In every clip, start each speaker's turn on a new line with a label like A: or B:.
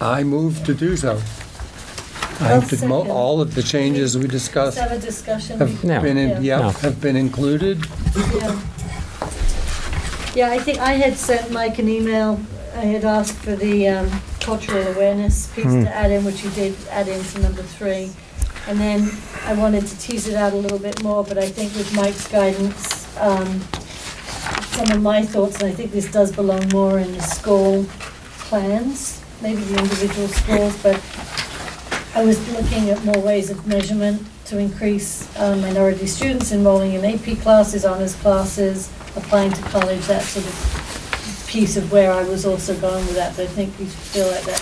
A: I move to do so. I think that mo-
B: second.
A: all of the changes we
B: Let's
A: discussed
B: have a discussion.
A: have
C: No.
A: been, in-
B: Yeah.
A: yeah,
C: No.
A: have been included.
B: Yeah. Yeah, I think I had sent Mike an email. I had asked for the um, cultural awareness piece to add in, which you did add in to number three. And then I wanted to tease it out a little bit more, but I think with Mike's guidance, um, some of my thoughts, and I think this does belong more in the school plans, maybe the individual schools, but I was looking at more ways of measurement to increase uh, minority students enrolling in AP classes, honors classes, applying to college, that sort of piece of where I was also going with that, but I think we feel like that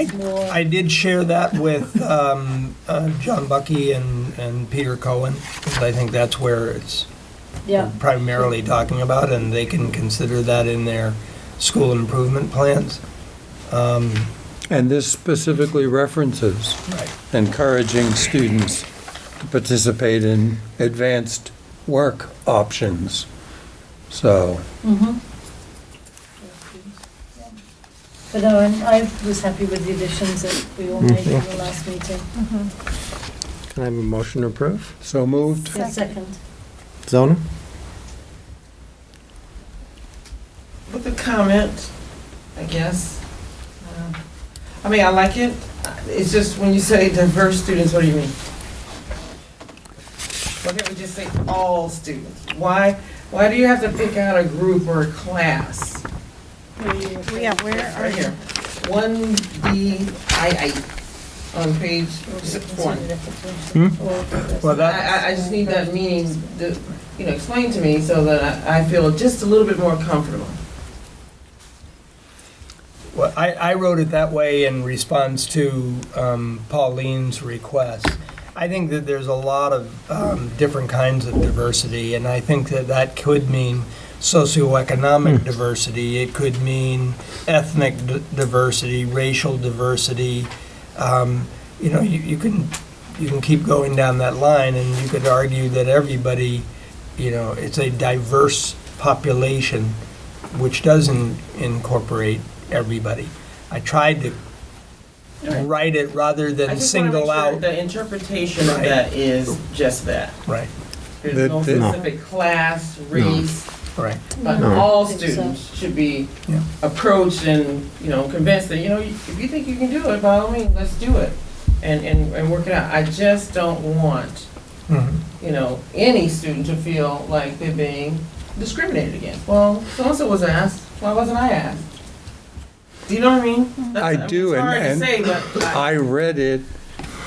B: is more.
D: I did share that with um, uh, John Bucky and, and Peter Cohen, 'cause I think that's where it's
B: Yeah,
D: primarily talking about, and they can consider that in their school improvement plans. Um,
A: And this specifically references
D: Right.
A: encouraging students to participate in advanced work options. So,
B: mm-hmm. But no, I'm- I was happy with the additions that we all made in the last meeting.
C: Can I have a motion to approve?
A: so moved.
B: Yeah, Second.
C: Zona?
E: With a comment, I guess. Uh, I mean, I like it. It's just when you say diverse students, what do you mean? Why can't we just say all students? Why, why do you have to pick out a group or a class?
F: Yeah, where are
E: Right
F: you?
E: here. One B I I on page six one.
D: Well, that,
E: I, I- I just need that meaning, to, you know, explained to me so that I, I feel just a little bit more comfortable.
D: well, I, I wrote it that way in response to um, Pauline's request. I think that there's a lot of um, different kinds of diversity, and I think that that could mean socioeconomic diversity, it could mean ethnic d- diversity, racial diversity. Um, You know, you you can, you can keep going down that line, and you could argue that everybody, you know, it's a diverse population, which doesn't incorporate everybody. I tried to write it rather
E: I
D: than
E: just wanna make
D: single
E: sure
D: out.
E: The interpretation of
D: Right.
E: that is just that.
D: Right,
A: That-
E: There's no
A: that-
C: No.
E: specific class, race,
D: right.
E: but
C: No.
E: all
B: I think so.
E: students should be
D: Yeah.
E: approached and, you know, convinced that, you know, if you think you can do it, by all means, let's do it. And, and, and work it out. I just don't want,
D: Mhm.
E: you know, any student to feel like they're being discriminated against. Well, so-and-so was asked, why wasn't I asked? Do you know what I mean?
B: Mm-hmm.
E: That's-
A: I
E: mean, it's
A: do, and-
E: hard to
A: and
E: say, but I-
A: I read it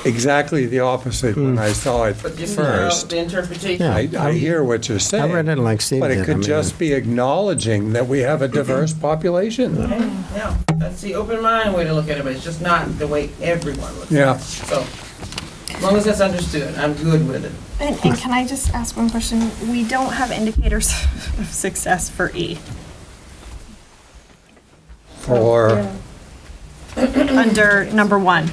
A: exactly the opposite when I saw it
E: But you see how
A: first.
E: the interpretation.
C: Hmm. Yeah.
A: I, I hear what you're
C: I
A: saying.
C: read it like Steve did.
A: But it
C: I
A: could
C: mean,
A: just be acknowledging that we have a diverse population.
E: Okay, No, that's the open mind way to look at it, but it's just not the way everyone looks at it.
A: Yeah,
E: So, as long as that's understood, I'm good with it.
F: And, and can I just ask one question? We don't have indicators of success for E
A: for,
B: Yeah.
F: under number one.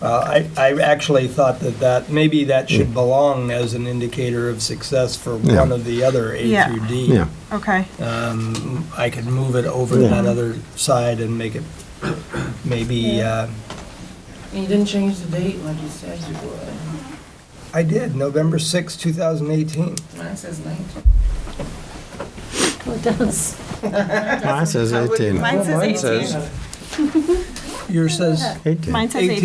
D: Well, I, I actually thought that that, maybe that should belong as an indicator of success for
C: Yeah.
D: one of the other A
F: Yeah.
D: through D.
C: Yeah,
F: Okay.
D: Um, I could move it over to
C: Yeah.
D: that other side and make it maybe, uh,
E: And you didn't change the date like you said you would.
D: I did, November sixth, two 2018.
E: Mine says 19.
B: Well, it does.
C: mine says
E: I wouldn't-
C: 18.
F: Mine
A: mine
F: says 18.
A: says-
D: Yours says,
F: Mine
C: 18.
F: says
D: 18.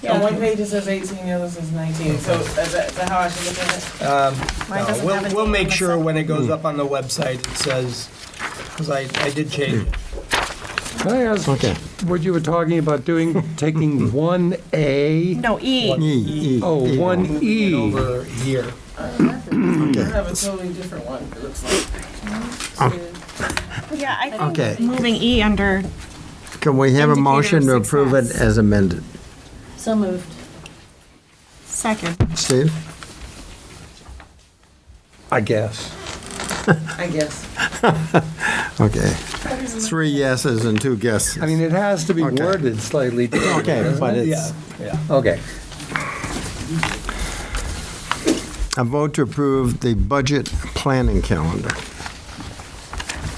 F: 18.
E: On one page it says 18, the other says 19. So is that, is that how I should look at it?
D: um, no,
F: Mine doesn't have
D: we'll, we'll
F: a date on
D: make
F: the
D: sure
F: side.
D: when it goes up on the website, it says, because I, I did change it.
A: can I ask
C: Okay.
A: what you were talking about doing, taking one A?
F: No, E.
C: E, E.
A: Oh,
C: E.
A: one E.
D: Over here.
E: I have a totally different one, it looks like.
F: Yeah, I think
C: Okay.
F: moving E under,
C: Can we have a
F: Indicator of
C: motion to approve it
F: success.
C: as amended?
B: So moved.
F: second.
C: Steve?
A: I guess.
E: I guess.
C: Okay. Three yeses and two guesses.
A: I mean, it has to be
C: Okay.
A: worded slightly different.
C: Okay, but
D: Yeah,
C: it's,
D: yeah.
A: Okay.
C: a vote to approve the budget planning calendar.